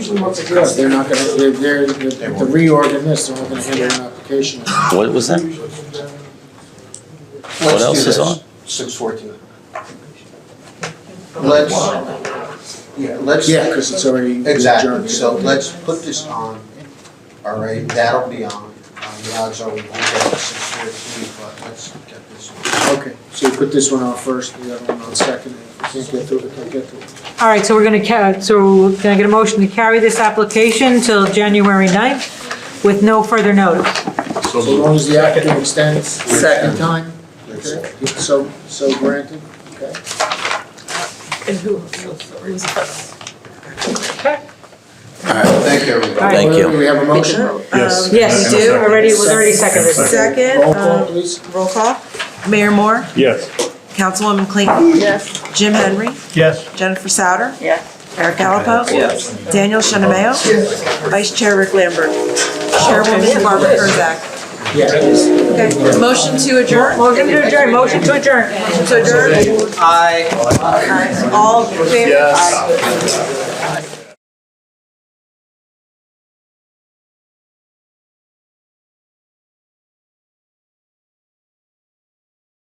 usually what's addressed, they're not gonna, they're, they're, the reorg in this, they're not gonna handle an application. What was that? What else is on? Six fourteen. Let's, yeah, let's. Yeah, because it's already it's Exactly, adjourned. so let's put this on, all right, that'll be on, um, the odds are we won't get six fourteen, but let's get this one. Okay, so you put this one on first, the other one on second, and if you can't get to it, we can't get to it. All right, so we're going to, so can I get a motion to carry this application till January 9th with no further notice? So as long as the applicant extends second Second. time, okay, it's so, so granted, okay? And who, who's first? All right, thank you, All everybody. right. Thank you. Do we have a motion? Yes. Yes, you do. already, it was already seconded. Second, Roll call, um, please. roll call. Mayor Moore, Yes. Councilwoman Clayton, Yes. Jim Henry, Yes. Jennifer Souter, Yes. Eric Gallopo. Yes. Daniel Shinameo. Vice Chair Rick Lambert. Chairwoman Barbara Kurzak. Yes. Okay, motion to adjourn? Motion to adjourn, motion to adjourn. To adjourn? Aye. All in favor? Aye.